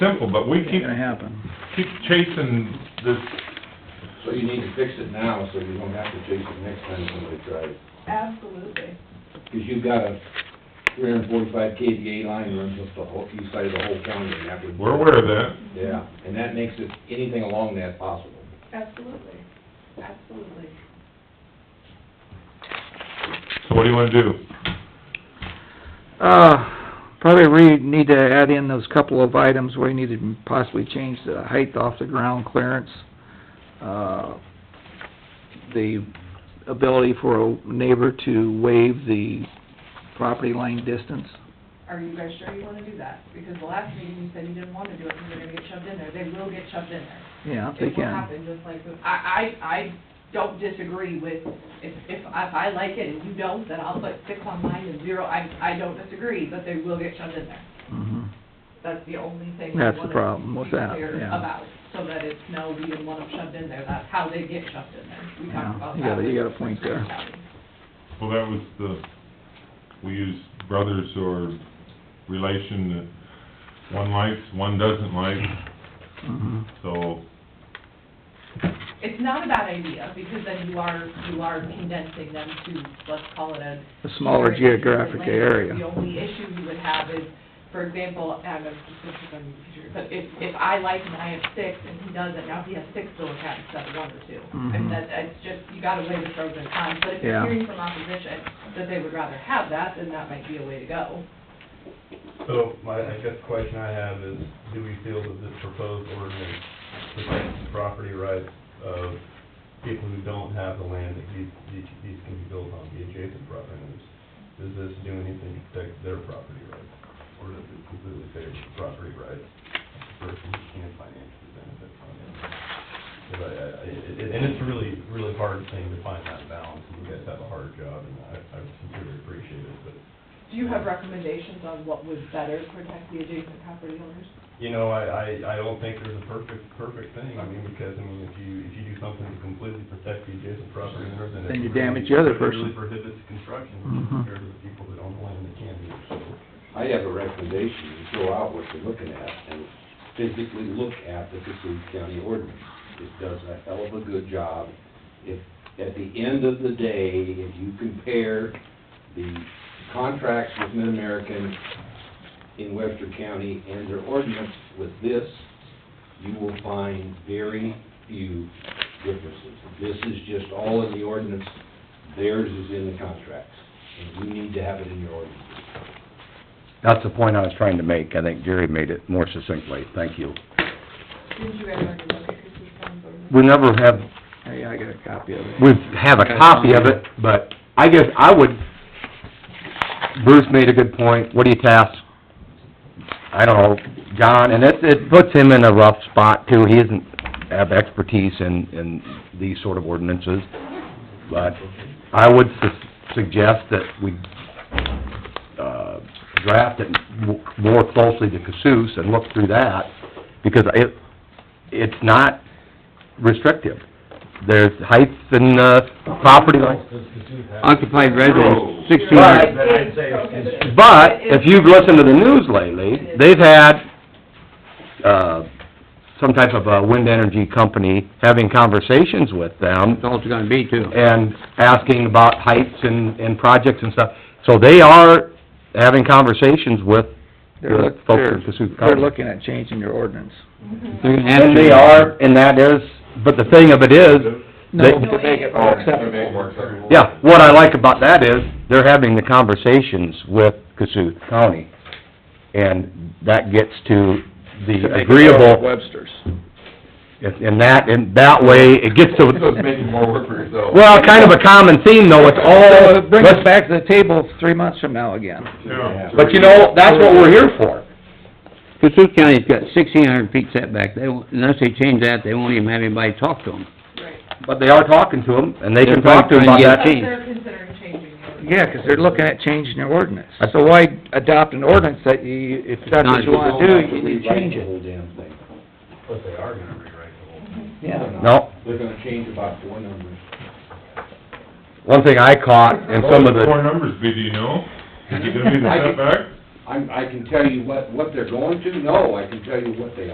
simple, but we Ain't keep, gonna happen. keep chasing this, So you need to fix it now, so you don't have to chase it next time somebody tries. Absolutely. Because you've got a three hundred and forty-five KVA line runs up the whole, east side of the whole county, and that would... we're aware of that. Yeah, and that makes it, anything along that possible. Absolutely. Absolutely. So what do you wanna do? Uh, probably we need to add in those couple of items where you need to possibly change the height off the ground clearance. Uh, The ability for a neighbor to waive the property line distance. Are you guys sure you wanna do that? Because the last meeting, you said you didn't wanna do it, because they're gonna get shoved in there. They will get shoved in there. Yeah, they It will can. happen, just like, the- I, I, I don't disagree with, if, if, I- if I like it and you don't, then I'll put six on mine and zero. I, I don't disagree, but they will get shoved in there. Mhm. That's the only thing. That's the problem with that, we yeah. About, so that it's, no, we didn't want them shoved in there, that's how they get shoved in there. We Yeah, talked about you that. gotta- you got a point there. Well, that was the, we use brothers or relation that one likes, one doesn't like, Mhm. so, It's not a bad idea, because then you are, you are condensing them to, let's call it a. A smaller geographic The area. only issue you would have is, for example, and I'm just, this is on your computer, but if, if I like and I have six, and he doesn't, now he has six Billicat instead of one or two. I mean, Mhm. that, that's just, you gotta weigh the pros and cons, but if Yeah. you're hearing from opposition that they would rather have that, then that might be a way to go. So my, I guess the question I have is, do we feel that this proposed ordinance protects the property rights of people who don't have the land that these, these these can be built on, the adjacent property owners? Does this do anything to protect their property rights? Or does it completely favor the property rights of the person who can financially benefit from it? 'Cause I, I- I- and it's a really, really hard thing to find that balance, and you guys have a hard job, and I, I sincerely appreciate it, but Do you have recommendations on what would better protect the adjacent property owners? You know, I, I, I don't think there's a perfect, perfect thing, I mean, because, I mean, if you, if you do something to completely protect the adjacent property owners, then. it Then you damage really- the other it really person. prohibits construction Mhm. compared to the people that own the land that can do it, so. I have a recommendation, you throw out what you're looking at and physically look at the Cassuth County ordinance. It does a hell of a good job. If, at the end of the day, if you compare the contracts with Mid-American in Webster County and their ordinance with this, you will find very few differences. This is just all in the ordinance, theirs is in the contracts, and you need to have it in your ordinance. That's the point I was trying to make. I think Jerry made it more succinctly. Thank you. Didn't you guys already look at this response ordinance? We never have, Hey, I got a copy of it. we have a copy of it, but I guess I would, Bruce made a good point. What do you task, I don't know, John, and it, it puts him in a rough spot too. He isn't, have expertise in, in these sort of ordinances. But I would su- suggest that we, uh, draft it w- more closely to Cassous and look through that, because it, it's not restrictive. There's heights and, uh, property lines. Occupied residence, sixteen But, But I'd say but if you've listened to the news lately, they've had, uh, some type of a wind energy company having conversations with them That's all it's gonna be too. and asking about heights and, and projects and stuff. So they are having conversations with They're the look- folks they're- in Cassuth They're County. looking at changing your ordinance. They're gonna have And they to- are, and that is, but the thing of it is, They- No, to make it more acceptable. yeah, what I like about that is, they're having the conversations with Cassuth County. And that gets to To the make it more agreeable, Webster's. and that, and that way, it gets to, more work for yourself. well, kind of a common theme though, it's all, So it brings us back to the table three months from now again. yeah. but you know, that's what we're here for. Cassuth County's got sixteen hundred feet setback, they, won't- unless they change that, they won't even have anybody talk to them. Right. But they are talking to them, and they They're can talk to them about probably trying to get Change. But that. They're considering changing the ordinance. Yeah, 'cause they're looking at changing your ordinance. So why adopt an ordinance that you, if that's what you wanna do, you need to change The it? whole damn thing. But they are gonna rewrite the whole thing. Yeah. No, They're gonna change about four numbers. one thing I caught in some of What would the, four numbers be, do you know? Is it gonna be the setback? I'm, I can tell you what, what they're going to, no, I can tell you what they